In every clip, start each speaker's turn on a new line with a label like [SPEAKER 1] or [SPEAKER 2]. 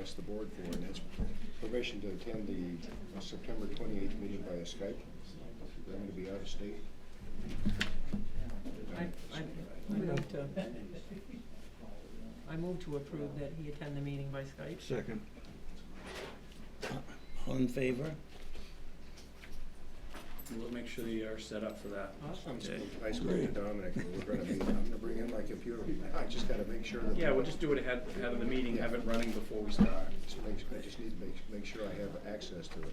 [SPEAKER 1] asked the board for, and that's permission to attend the uh, September twenty-eighth meeting via Skype. I'm gonna be out of state.
[SPEAKER 2] I, I, I move to, I move to approve that he attend the meeting by Skype.
[SPEAKER 3] Second. All in favor?
[SPEAKER 4] We'll make sure they are set up for that.
[SPEAKER 2] Awesome.
[SPEAKER 1] I'm sp- I spoke to Dominic, and we're gonna be, I'm gonna bring in my computer, I just gotta make sure that.
[SPEAKER 4] Yeah, we'll just do it ahead, ahead of the meeting, have it running before we start.
[SPEAKER 1] Just make, I just need to make, make sure I have access to it.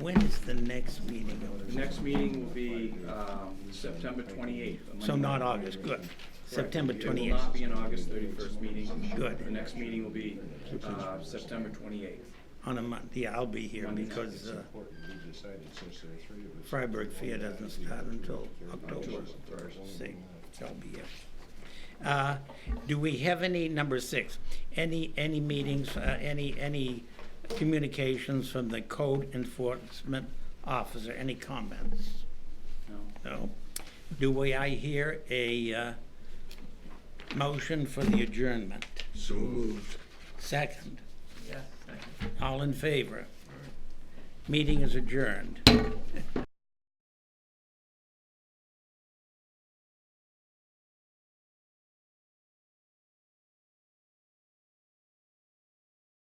[SPEAKER 3] When is the next meeting?
[SPEAKER 4] The next meeting will be, um, September twenty-eighth.
[SPEAKER 3] So not August, good. September
[SPEAKER 4] It will not
[SPEAKER 3] 28th,
[SPEAKER 4] be an August thirty-first meeting.
[SPEAKER 3] Good.
[SPEAKER 4] The next meeting will be, uh, September twenty-eighth.
[SPEAKER 3] on a Monday. Yeah, I'll be here because
[SPEAKER 1] It's
[SPEAKER 3] uh,
[SPEAKER 1] important, we decided since there are three of us.
[SPEAKER 3] Freiburg Fair doesn't start until October
[SPEAKER 1] October.
[SPEAKER 3] 6th. So I'll be here. Uh, Do we have any, number six, any, any meetings, uh, any, any communications from the code enforcement officer? Any comments? No. Do we, I hear a uh, motion for the adjournment?
[SPEAKER 1] So moved.
[SPEAKER 3] Second.
[SPEAKER 2] Yes, second.
[SPEAKER 3] All in favor? Meeting is adjourned.